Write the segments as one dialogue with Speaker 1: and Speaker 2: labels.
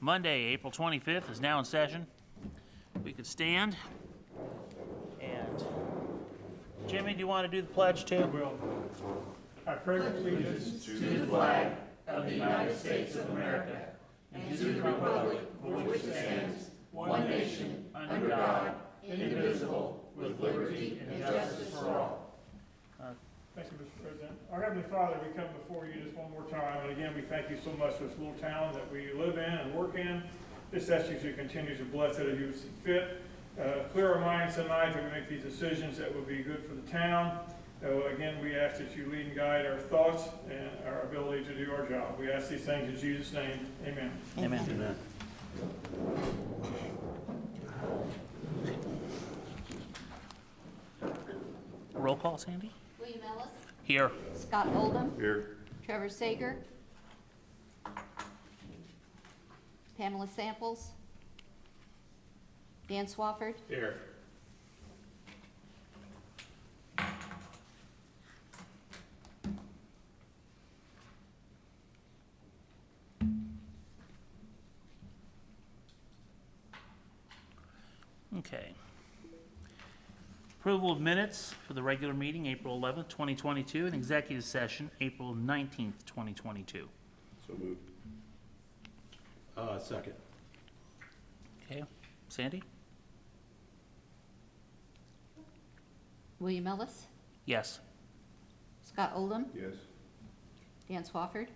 Speaker 1: Monday, April 25th is now in session. We could stand. And Jimmy, do you want to do the pledge too?
Speaker 2: will. I pledge allegiance to the flag of the United States of America and to the republic for which it stands, one nation, under God, indivisible, with liberty and justice for all. Thank you, Mr. President. Our Heavenly Father, we come before you just one more time, and again, we thank you so much for this little town that we live in and work in. Just ask you to continue to bless it as you see fit. Uh, Clear our minds tonight to make these decisions that will be good for the town. So again, we ask that you lead and guide our thoughts and our ability to do our job. We ask these things in Jesus' name, amen.
Speaker 1: Amen. Roll call, Sandy?
Speaker 3: William Ellis.
Speaker 1: Here.
Speaker 3: Scott Oldham.
Speaker 4: Here.
Speaker 3: Trevor Sager. Pamela Samples. Dan Swafford.
Speaker 4: Here.
Speaker 1: Okay. Approval of minutes for the regular meeting, April 11th, 2022, and executive session, April 19th, 2022.
Speaker 4: So moved. Uh, second.
Speaker 1: Okay, Sandy?
Speaker 3: William Ellis.
Speaker 1: Yes.
Speaker 3: Scott Oldham.
Speaker 4: Yes.
Speaker 3: Dan Swafford.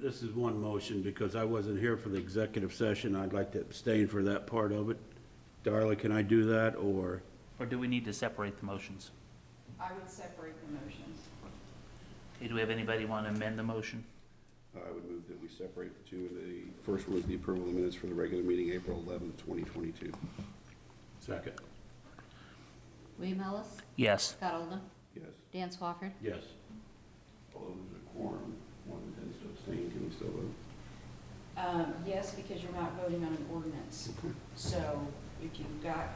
Speaker 5: This is one motion, because I wasn't here for the executive session, I'd like to abstain for that part of it. Darla, can I do that, or,
Speaker 1: Or do we need to separate the motions?
Speaker 6: I would separate the motions.
Speaker 1: Okay, do we have anybody want to amend the motion?
Speaker 4: I would move that we separate the two. The first was the approval of the minutes for the regular meeting, April 11th, 2022.
Speaker 5: second?
Speaker 3: William Ellis.
Speaker 1: Yes.
Speaker 3: Scott Oldham.
Speaker 4: Yes.
Speaker 3: Dan Swafford.
Speaker 5: Yes.
Speaker 4: Although there's a quorum, one intends to abstain, can we still vote?
Speaker 6: Um, Yes, because you're not voting on an ordinance. So if you've got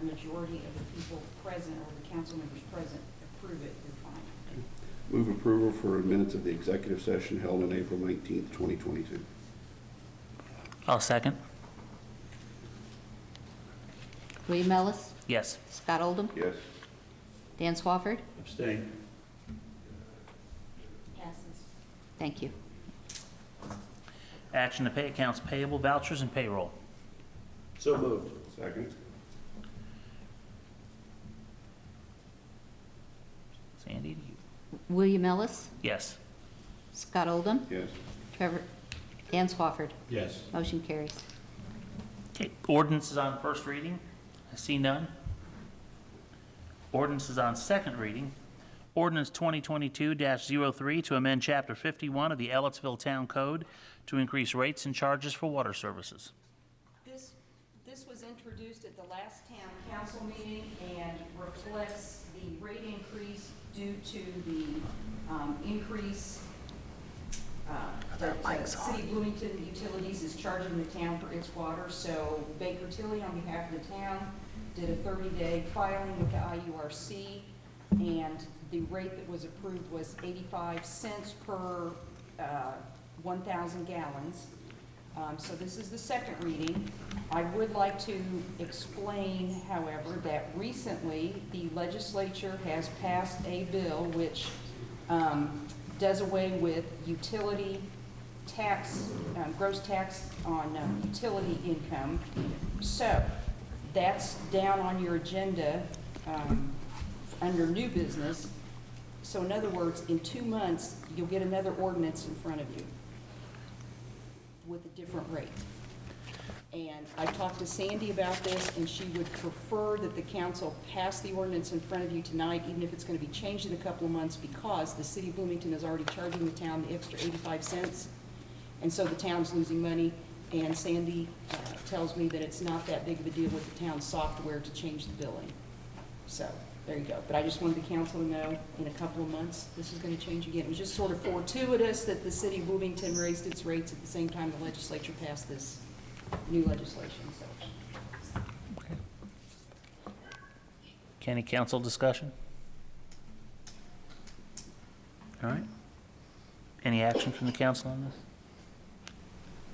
Speaker 6: a majority of the people present or the council members present approve it, you're fine.
Speaker 4: Move approval for minutes of the executive session held on April 19th, 2022.
Speaker 1: I'll second.
Speaker 3: William Ellis.
Speaker 1: Yes.
Speaker 3: Scott Oldham.
Speaker 4: Yes.
Speaker 3: Dan Swafford.
Speaker 5: Abstain?
Speaker 6: Passes.
Speaker 3: Thank you.
Speaker 1: Action to pay accounts payable, vouchers, and payroll.
Speaker 5: So moved.
Speaker 4: Second.
Speaker 1: Sandy, do you?
Speaker 3: William Ellis.
Speaker 1: Yes.
Speaker 3: Scott Oldham.
Speaker 4: Yes.
Speaker 3: Trevor. Dan Swafford.
Speaker 5: Yes.
Speaker 3: Motion carries.
Speaker 1: Okay, ordinance is on first reading. I see none. Ordinance is on second reading. Ordinance 2022-03 to amend Chapter 51 of the Ellettsville Town Code to increase rates and charges for water services.
Speaker 6: This, this was introduced at the last town council meeting and reflects the rate increase due to the um, increase uh, that the City of Bloomington Utilities is charging the town for its water. So Baker Tilly, on behalf of the town, did a 30-day filing with the IURC, and the rate that was approved was 85 cents per uh, 1,000 gallons. Um, So this is the second reading. I would like to explain, however, that recently the legislature has passed a bill which um, does away with utility tax, um, gross tax on um, utility income. So that's down on your agenda um, under new business. So in other words, in two months, you'll get another ordinance in front of you with a different rate. And I talked to Sandy about this, and she would prefer that the council pass the ordinance in front of you tonight, even if it's going to be changed in a couple of months, because the city of Bloomington is already charging the town the extra 85 cents, and so the town's losing money. And Sandy uh, tells me that it's not that big of a deal with the town's software to change the billing. So, there you go. But I just wanted the council to know, in a couple of months, this is going to change again. It was just sort of fortuitous that the city of Bloomington raised its rates at the same time the legislature passed this new legislation, so.
Speaker 1: Any council discussion? All right. Any action from the council on this?